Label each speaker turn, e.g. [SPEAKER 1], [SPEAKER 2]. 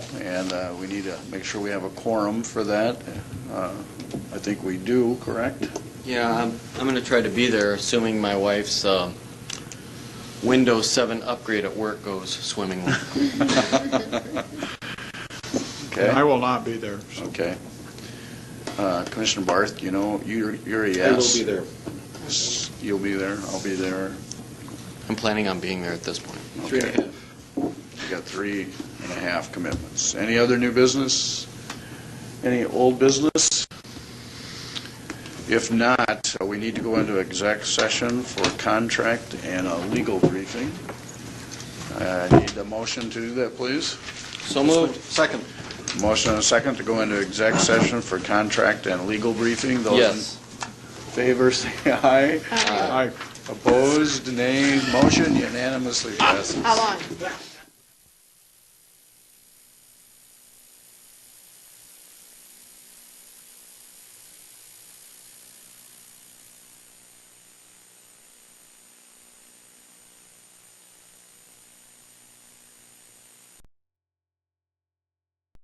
[SPEAKER 1] and uh, we need to make sure we have a quorum for that. Uh, I think we do, correct?
[SPEAKER 2] Yeah, I'm, I'm going to try to be there, assuming my wife's um, Windows 7 upgrade at work goes swimmingly.
[SPEAKER 3] I
[SPEAKER 1] Okay,
[SPEAKER 3] will not be there. so-
[SPEAKER 1] okay. Uh, Commissioner Barth, you know, you're you're a yes.
[SPEAKER 4] I will be there.
[SPEAKER 1] there. You'll be there, I'll be there.
[SPEAKER 2] I'm planning on being there at this point.
[SPEAKER 4] Three and a
[SPEAKER 1] Okay. We got three and a half commitments. Any other new business? Any old business? If not, uh, we need to go into exec session for contract and a legal briefing. Uh, I need a motion to do that, please.
[SPEAKER 2] So moved.
[SPEAKER 4] Second.
[SPEAKER 1] Motion and a second to go into exec session for contract and legal briefing.
[SPEAKER 2] Yes.
[SPEAKER 1] Those in favor, say aye.
[SPEAKER 3] I
[SPEAKER 1] Opposed, nay. Motion unanimously passes.
[SPEAKER 5] How long?